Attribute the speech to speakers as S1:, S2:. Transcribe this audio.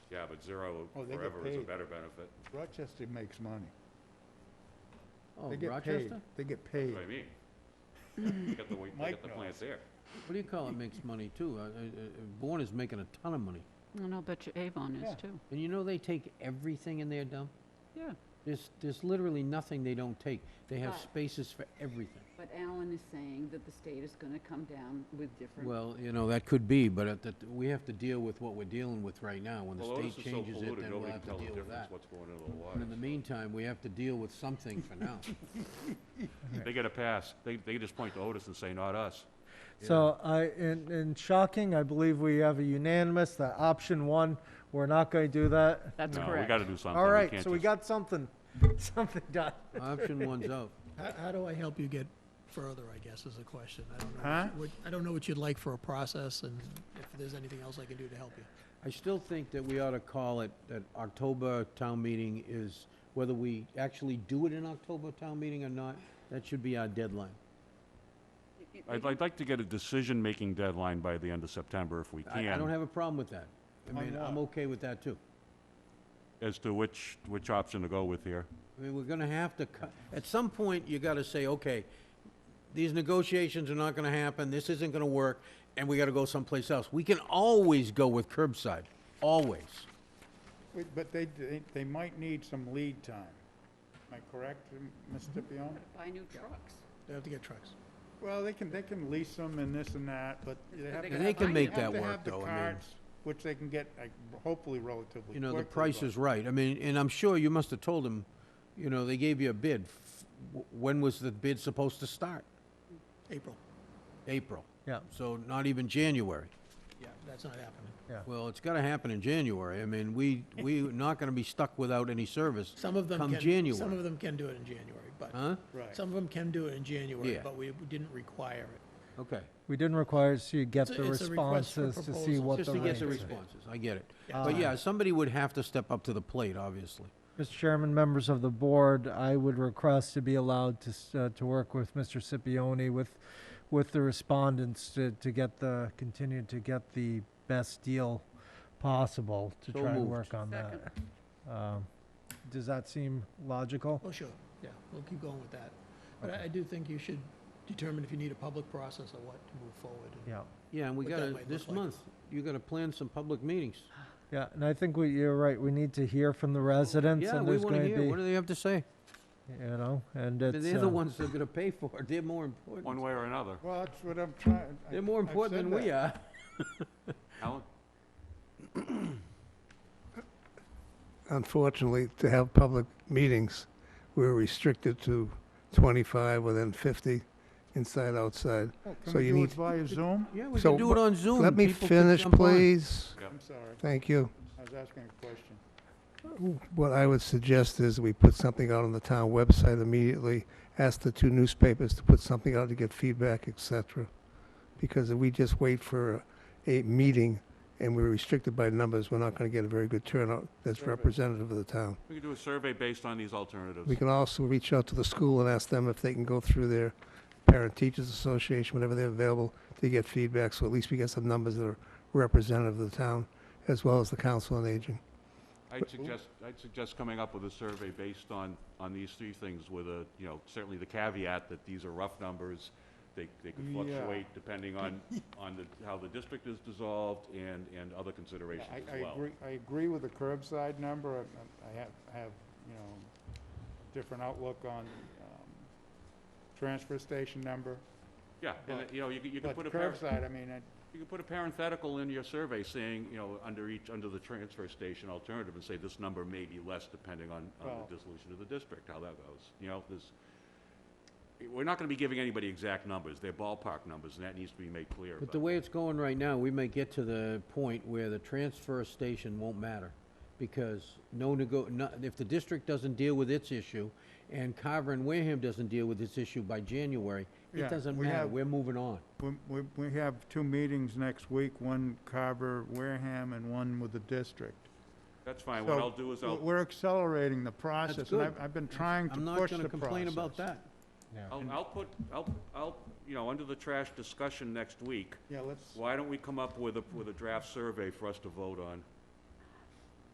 S1: Yeah, but zero
S2: Oh, they get
S1: forever is a
S2: paid.
S1: better benefit.
S2: Rochester makes money.
S3: Oh,
S2: They get paid.
S3: Rochester?
S2: They get
S1: That's
S2: paid.
S1: what I mean. They got the, wa- they
S2: Mike
S1: got the
S2: knows.
S1: plants there.
S3: What do you call it makes money too? Uh, uh, uh, Bourne is making a ton of money.
S4: And I'll bet you Avon
S2: Yeah.
S4: is too.
S3: And you know they take everything in their dump?
S4: Yeah.
S3: There's, there's literally nothing they don't take. They have
S5: Right.
S3: spaces for everything.
S5: But Alan is saying that the state is gonna come down with different.
S3: Well, you know, that could be, but at the, we have to deal with what we're dealing with right now. When
S1: Well,
S3: the
S1: Otis is
S3: state
S1: so
S3: changes it,
S1: polluted,
S3: then we'll
S1: nobody
S3: have
S1: can
S3: to
S1: tell the
S3: deal with
S1: difference
S3: that.
S1: what's going into the
S3: But in the
S1: water.
S3: meantime, we have to deal with something for now.
S1: They get a pass. They, they just point to Otis and say, not us.
S6: So I, in, in shocking, I believe we have a unanimous that option one, we're not going to do that.
S4: That's
S1: No, we gotta do something.
S6: All right,
S1: can't
S6: so we
S1: just-
S6: got something, something done.
S3: Option one's out.
S7: How, how do I help you get further, I guess, is the question. I don't know.
S2: Huh?
S7: What, I don't know what you'd like for a process and if there's anything else I can do to help you.
S3: I still think that we ought to call it, that October town meeting is, whether we actually do it in October town meeting or not, that should be our deadline.
S1: I'd, I'd like to get a decision-making deadline by the end of September if we
S3: I, I don't
S1: can,
S3: have a problem with that. I
S2: On
S3: mean, I'm
S2: what?
S3: okay with that too.
S1: as to which, which option to go with here.
S3: I mean, we're gonna have to, cut- at some point, you gotta say, okay, these negotiations are not gonna happen, this isn't gonna work, and we gotta go someplace else. We can always go with curbside, always.
S2: Wait, But they, they- they might need some lead time. Am I correct, M- Mr.
S8: Mm-hmm.
S2: Pion?
S5: Buy new trucks.
S7: They have to get trucks.
S2: Well, they can, they can lease them and this and that, but they have to.
S3: gotta They can
S2: have-
S3: make
S2: have
S3: that
S2: to
S3: work,
S2: have the
S3: though, I mean.
S2: carts, Which they can get, like, hopefully relatively quickly.
S3: You know, the price
S2: but-
S3: is right. I mean, and I'm sure you must have told them, you know, they gave you a bid. F- w- When was the bid supposed to start?
S7: April.
S3: April.
S6: Yeah.
S3: So not even January.
S7: Yeah, that's not happening.
S3: Well, it's gotta happen in January. I mean, we, we're not gonna be stuck without any service
S7: Some of them
S3: come
S7: can.
S3: January.
S7: Some of them can do it in January, but
S3: Huh?
S2: Right.
S7: some of them can do it in January,
S3: Yeah.
S7: but we didn't require it.
S3: Okay.
S6: We didn't require, so you get
S7: It's
S6: the
S7: a- it's a request for
S6: responses to see
S7: proposals.
S6: what the
S3: Just to get the
S6: rates are.
S3: responses, I get it.
S7: Yeah. Uh-huh.
S3: But yeah, somebody would have to step up to the plate, obviously.
S6: Mr. Chairman, members of the board, I would request to be allowed to, s- uh, to work with Mr. Scipione with, with the respondents to, to get the, continue to get the best deal possible to
S3: So
S6: try and
S3: moved.
S6: work on that. Um, Does that seem logical?
S7: Well, Oh, sure, yeah, we'll keep going with that. But I, I do think you should determine if you need a public process or what to move forward. and-
S6: Yeah,
S3: Yeah, and we
S7: What that
S3: gotta,
S7: might look
S3: this
S7: like.
S3: month, you gotta plan some public meetings.
S6: yeah, and I think we, you're right, we need to hear from the residents
S3: Yeah,
S6: and
S3: we
S6: there's
S3: wanna
S6: going
S3: hear, what do
S6: to
S3: they have to say?
S6: be, you know, and it's.
S3: They're the
S6: uh,
S3: ones that are gonna pay for it, they're more
S1: One
S3: important.
S1: way or another.
S2: Well, that's what I'm trying. I-
S3: They're more
S2: I've
S3: important
S2: said
S3: than we
S2: that.
S3: are.
S1: Alan?
S8: unfortunately, to have public meetings, we're restricted to 25 within 50 inside, outside.
S2: Oh,
S8: So
S2: Can we
S8: you
S2: do it
S8: need-
S2: via Zoom?
S3: Yeah, we
S8: So,
S3: can do it
S8: but
S3: on Zoom.
S8: Let me
S3: People can
S8: finish,
S3: jump on.
S8: please.
S2: I'm sorry,
S8: Thank you.
S2: I was asking a question.
S8: What I would suggest is we put something out on the town website immediately, ask the two newspapers to put something out to get feedback, et cetera. Because if we just wait for a meeting and we're restricted by numbers, we're not going to get a very good turnout that's
S2: Survey.
S8: representative of the town.
S1: We can do a survey based on these alternatives.
S8: We can also reach out to the school and ask them if they can go through their parent teachers association, whenever they're available, to get feedback, so at least we get some numbers that are representative of the town, as well as the council on aging.
S1: I'd suggest, I'd suggest coming up with a survey based on, on these three things with a, you know, certainly the caveat that these are rough numbers. They, they could
S2: Yeah.
S1: fluctuate depending on, on the, how the district is dissolved and, and other
S2: Yeah,
S1: considerations
S2: I,
S1: as
S2: I
S1: well.
S2: agree, I agree with the curbside number. I- I I have, I have, you know, a different outlook on the um, transfer station number.
S1: Yeah, and,
S2: But-
S1: you know, you could, you could
S2: But
S1: put a, par-
S2: curbside, I mean, it-
S1: you could put a parenthetical in your survey saying, you know, under each, under the transfer station alternative and say this number may be less depending on, on
S2: Well-
S1: the dissolution of the district, how that goes. You know, there's, we're not gonna be giving anybody exact numbers. They're ballpark numbers and that needs to be made clear.
S3: But the way it's going right now, we may get to the point where the transfer station won't matter, because no nego, no, if the district doesn't deal with its issue, and Carver and Wareham doesn't deal with its issue by January,
S2: Yeah,
S3: it doesn't
S2: we
S3: matter,
S2: have-
S3: we're moving on.
S2: we- we, we have two meetings next week, one Carver, Wareham, and one with the district.
S1: That's fine, what
S2: So,
S1: I'll do is
S2: we're-
S1: I'll,
S2: We're accelerating the process, and
S3: good.
S2: I've, I've been trying to
S3: I'm
S2: push the
S3: not
S2: process.
S3: gonna complain about that.
S1: I'll, I'll put, I'll, I'll, you know, under the trash discussion next week,
S2: Yeah, let's,
S1: why don't we come up with a, with a draft survey for us to vote on?